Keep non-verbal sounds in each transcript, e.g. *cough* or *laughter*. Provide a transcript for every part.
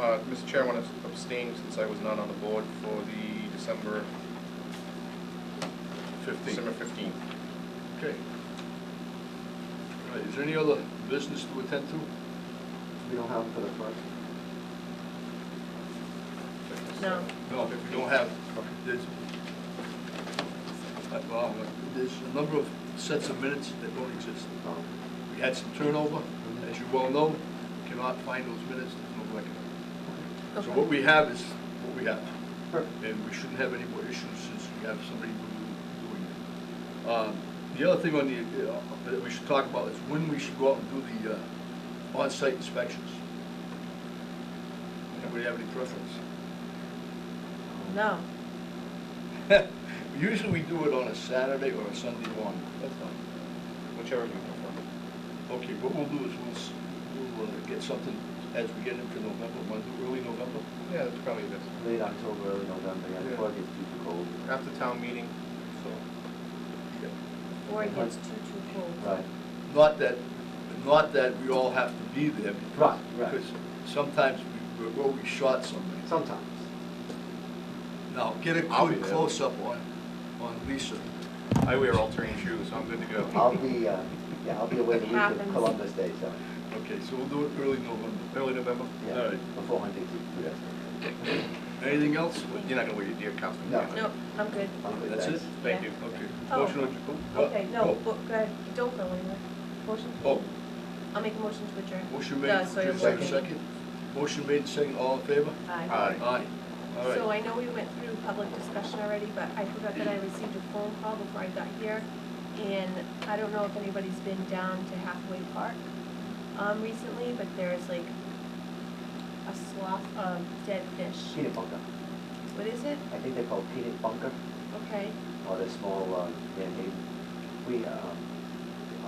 Uh, Mr. Chair, I want to abstain since I was not on the board for the December, Fifteen. December fifteenth. Okay. All right, is there any other business to attend to? We don't have it for the first. No. No, if we don't have, there's, uh, well, there's a number of sets of minutes that don't exist. Oh. We had some turnover, as you well know, cannot find those minutes, there's no record. So what we have is what we have, Perfect. and we shouldn't have any more issues since we have somebody who- doing it. Um, The other thing on the, uh, that we should talk about is when we should go out and do the uh, on-site inspections. Anybody have any preference? No. *laughs* Usually we do it on a Saturday or a Sunday morning. That's fine. Whichever you prefer. Okay, what we'll do is we'll, s- we'll uh, get something as we get into November, Monday, early November. Yeah, that's probably this. Late October, early November, yeah, before it gets too cold. After town meeting, so. Or it gets too, too cold. Right. Not that, not that we all have to be there. because- Right, right. Because sometimes we, we're, we shot somebody. Sometimes. Now, get a I'll be quick there. close-up on, on Lisa. I wear altering shoes, so I'm good to go. I'll be, uh, yeah, I'll be away the week of Happens. Columbus Day, so, Okay, so we'll do it early November. Early November? All yeah, right. before hunting season, yes. Anything else? You're not gonna wear your deer costume? No. are you? No, I'm good. I'll be That's back. it? Thank you. Okay. Oh. Motion on- oh, Okay, no, oh, but go ahead, don't go anywhere. Motion? Oh, I'll make a motion to adjourn. Motion made, No, sorry, is there a okay. second? Motion made, second, all in favor? Aye. Aye. Aye. All So right. I know we went through public discussion already, but I forgot that I received a phone call before I got here. And I don't know if anybody's been down to Hathaway Park, um, recently, but there's like a slough of dead fish. Peanut bunker. What is it? I think they're called peanut bunker, Okay, or the small, um, Van Hayden. We, um,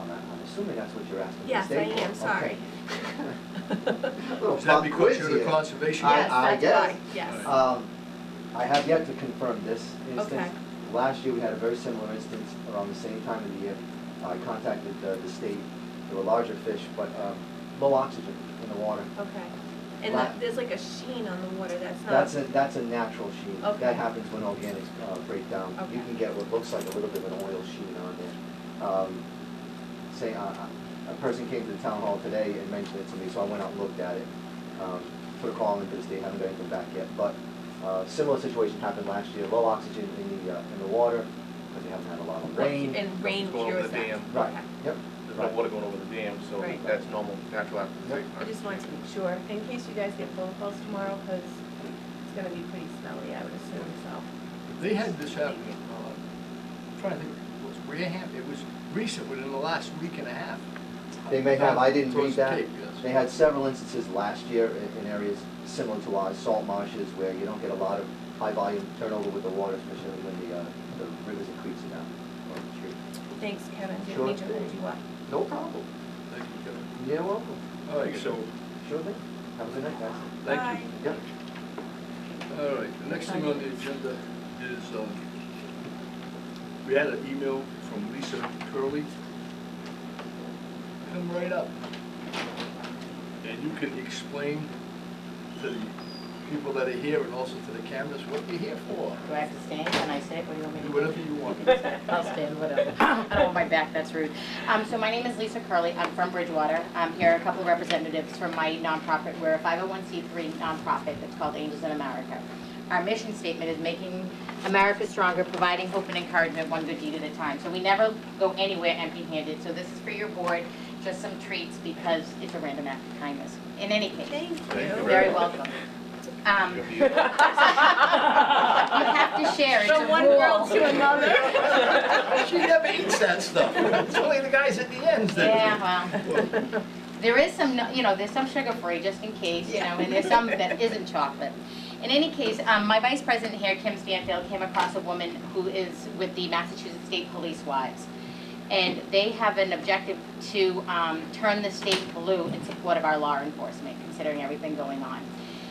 I'm, I'm assuming that's what you're asking. yes, I State law. am, Okay. sorry. *laughs* Little Is that pop because you're quiz the here. conservation? I- Yes, I that's guess. why, yes. Um, I have yet to confirm this Okay. instance. Last year, we had a very similar instance around the same time of the year. I contacted uh, the state, there were larger fish, but um, low oxygen in the water. *laughs* Okay, and Right. that, there's like a sheen on the water, that's not. That's a, that's a natural sheen. Okay. That happens when organics uh, break down. You Okay. can get what looks like a little bit of an oil sheen on there. Um, Say, uh, a person came to the town hall today and mentioned it to me, so I went out and looked at it. Um, Put a call in because they haven't got anything back yet, but uh, similar situation happened last year. Low oxygen in the, uh, in the water, because they haven't had a lot of Well, rain. And rain Go over the cures that. dam. Right, Okay. yep. There's no right. water going over the dam, so Right. that's normal, natural after. I just wanted to make sure, in case you guys get phone calls tomorrow, because it's gonna be pretty smelly, I would assume, so. They had this happen, uh, I'm trying to think, it was Wareham, it was recent, within the last week and a half. They may have, I didn't read Towards the that. Cape, yes. They had several instances last year in, in areas similar to ours, salt marshes, where you don't get a lot of high volume turnover with the water, especially when the, uh, the rivers and creeks are down. or the stream. Thanks, Kevin, didn't Sure mean to hold thing. you up. No problem. Thank you, Kevin. You're welcome. All right, so, Sure thing. Have a good night, guys. thank Bye. you. Yep. All right, the next thing on the agenda is, um, we had an email from Lisa Curley. Come right up. And you can explain to the people that are here and also to the cameras what you're here for. Do I have to stand? Can I sit? What do you want me to Do do? whatever you want. *laughs* I'll stand, whatever. I don't want my back, that's rude. Um, so my name is Lisa Curley. I'm from Bridgewater. I'm here, a couple of representatives from my nonprofit. We're a 501c3 nonprofit that's called Angels in America. Our mission statement is making America stronger, providing hope and encouragement, one good deed at a time. So we never go anywhere empty-handed. So this is for your board, just some treats because it's a random act of kindness. In any case, Thank you. Thank you you're *laughs* very welcome. Um, You'll be- *laughs* You have to share, it's a From one rule. girl to another. *laughs* She never eats that stuff. It's only the guys at the ends that. Yeah, well, there is some, you know, there's some sugar-free, just in case, you know, and there's some that isn't chocolate. In any case, um, my vice president here, Kim Stanfield, came across a woman who is with the Massachusetts State Police Wives. And they have an objective to, um, turn the state blue in support of our law enforcement, considering everything going on.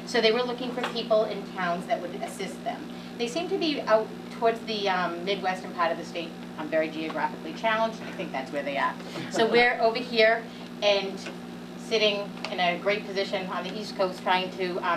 So they were looking for people in towns that would assist them. They seem to be out towards the um, Midwestern part of the state, I'm very geographically challenged, I think that's where they are. So we're over here and sitting in a great position on the East Coast trying to um,